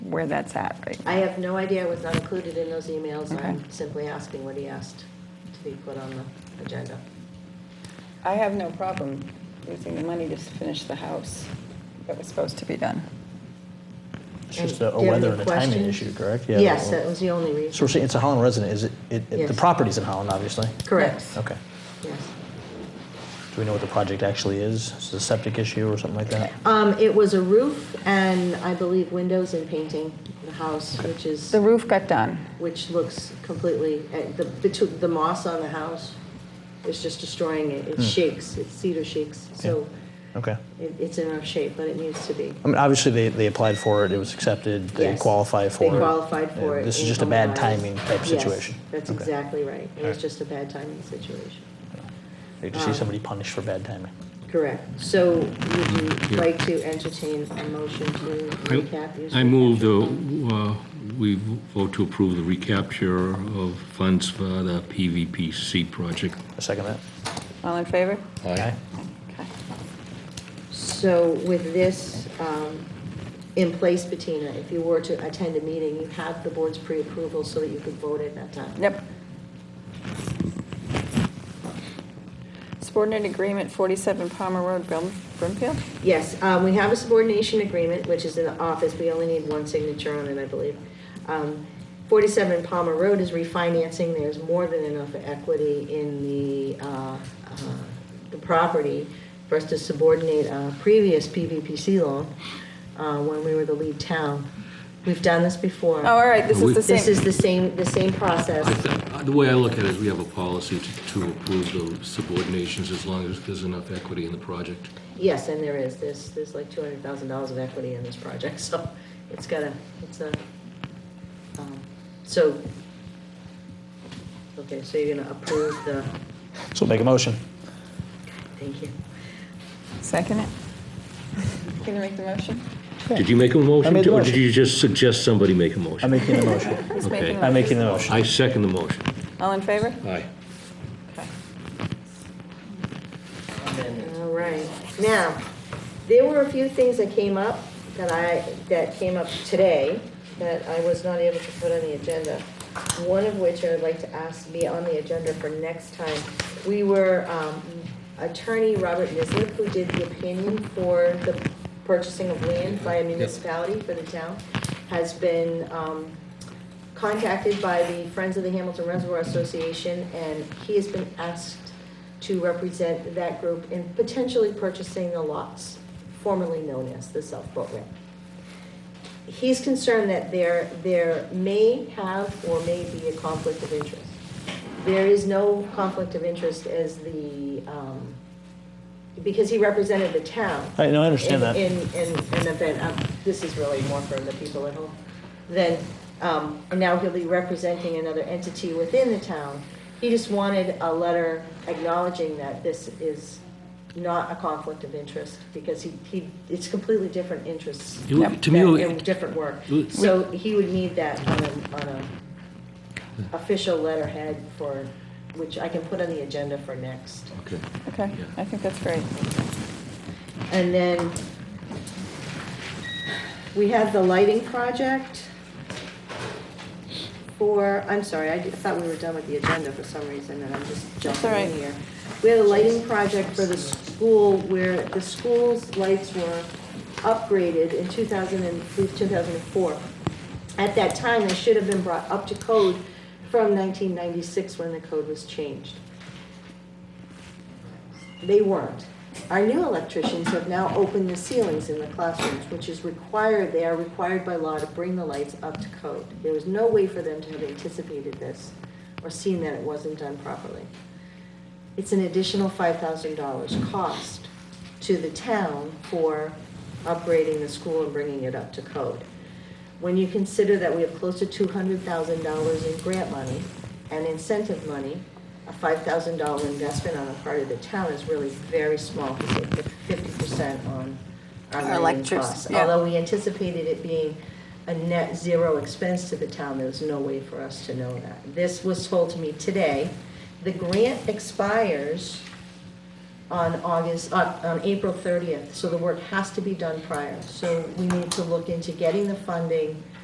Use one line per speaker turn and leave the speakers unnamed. where that's at right
I have no idea, it was not included in those emails.
Okay.
I'm simply asking what he asked to be put on the agenda.
I have no problem using the money to finish the house that was supposed to be done.
It's
And
just a a
do you have
weather
any
and a timing
questions?
issue, correct? Yeah,
Yes,
well-
that was the only
So
reason.
we're saying it's a Holland resident, is it, it- it, the
Yes.
property's in Holland, obviously?
Correct,
Okay.
yes.
Do we know what the project actually is? Is it a septic issue or something like that?
Um, it was a roof and I believe windows and painting the house, which is,
The roof got done.
which looks completely, uh, the, between the moss on the house is just destroying it.
Hmm.
It shakes, it's cedar shakes, so
Okay.
it, it's in rough shape, but it needs to be.
I mean, obviously, they, they applied for it, it was accepted, they
Yes.
qualify for it.
They qualified for
and
it.
This is
in
just a bad
Illinois.
timing type
Yes,
situation.
that's
Okay.
exactly right. It was just a bad timing situation.
They just
um,
see somebody punished for bad timing.
Correct. So would you like to entertain a motion to recap? use
I move
recapture
that
fund?
uh, we vote to approve the recapture of funds for the PVPC project.
A second that.
All in favor?
Aye.
Okay.
So with this um, in place, Bettina, if you were to attend a meeting, you have the board's pre-approval so that you could vote at that time.
Yep. Subordinate agreement, 47 Palmer Road, Brim- Brimfield?
Yes, um, we have a subordination agreement, which is in the office, we only need one signature on it, I believe. Um, Forty-seven Palmer Road is refinancing, there's more than enough equity in the, uh, uh, the property for us to subordinate a previous PVPC loan, uh, when we were the lead town. We've done this before.
Oh, all right, this is the
This is
same.
the same, the same process.
I th- The way I look at it is we have a policy to- to approve the subordinations as long as there's enough equity in the project.
Yes, and there is, there's, there's like two hundred thousand dollars of equity in this project, so it's gotta, it's a, um, so, okay, so you're gonna approve the,
So make a motion.
thank you.
Second it? Can you make the motion?
Did you make a motion?
made the
Or did
motion.
you just suggest somebody make a
I'm
motion?
making the motion.
He's
Okay.
making the
I'm making the
motion.
motion.
I second the motion.
All in favor?
Aye.
Okay.
All right, now, there were a few things that came up that I, that came up today that I was not able to put on the agenda. One of which I would like to ask be on the agenda for next time. We were, um, attorney Robert Nislip, who did the opinion for the purchasing of land by a municipality for the town, has been, um, contacted by the Friends of the Hamilton Reservoir Association, and he has been asked to represent that group in potentially purchasing the lots formerly known as the South Boat Ramp. He's concerned that there, there may have or may be a conflict of interest. There is no conflict of interest as the, um, because he represented the town
I, no, I understand that.
in, in, in an event, um, this is really more for the people at home, then, um, and now he'll be representing another entity within the town. He just wanted a letter acknowledging that this is not a conflict of interest, because he, he, it's completely different interests
It would- To me, it
that- and
would-
different work.
Ooh.
So he would need that on a, on a official letterhead for, which I can put on the agenda for next.
okay.
Okay, I think that's great.
And then we have the lighting project for, I'm sorry, I did- thought we were done with the agenda for some reason, and I'm just
That's
jumping
all right.
in here. We had a lighting project for the school where the school's lights were upgraded in 2000 and, through 2004. At that time, they should have been brought up to code from 1996 when the code was changed. They weren't. Our new electricians have now opened the ceilings in the classrooms, which is required, they are required by law to bring the lights up to code. There was no way for them to have anticipated this or seen that it wasn't done properly. It's an additional five thousand dollars cost to the town for upgrading the school and bringing it up to code. When you consider that we have close to two hundred thousand dollars in grant money and incentive money, a five thousand dollar investment on the part of the town is really very small, fifty percent on our lighting
Electric-
costs.
yeah.
Although we anticipated it being a net zero expense to the town, there was no way for us to know that. This was told to me today. The grant expires on August, on, on April thirtieth, so the work has to be done prior. So we need to look into getting the funding